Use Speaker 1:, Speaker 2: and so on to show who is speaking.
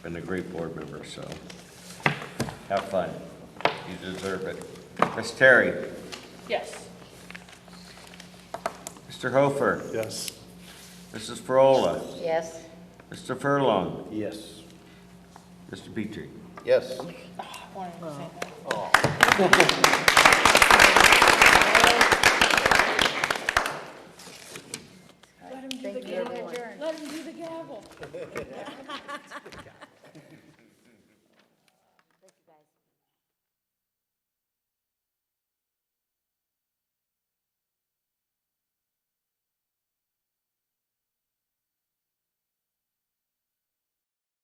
Speaker 1: Been a great board member, so have fun. You deserve it. Ms. Terry,
Speaker 2: Yes.
Speaker 1: Mr. Hofer,
Speaker 3: Yes.
Speaker 1: Mrs. Frola,
Speaker 2: Yes.
Speaker 1: Mr. Furlong,
Speaker 3: Yes.
Speaker 1: Mr. Petrie.
Speaker 3: Yes.
Speaker 2: I wanted to say that.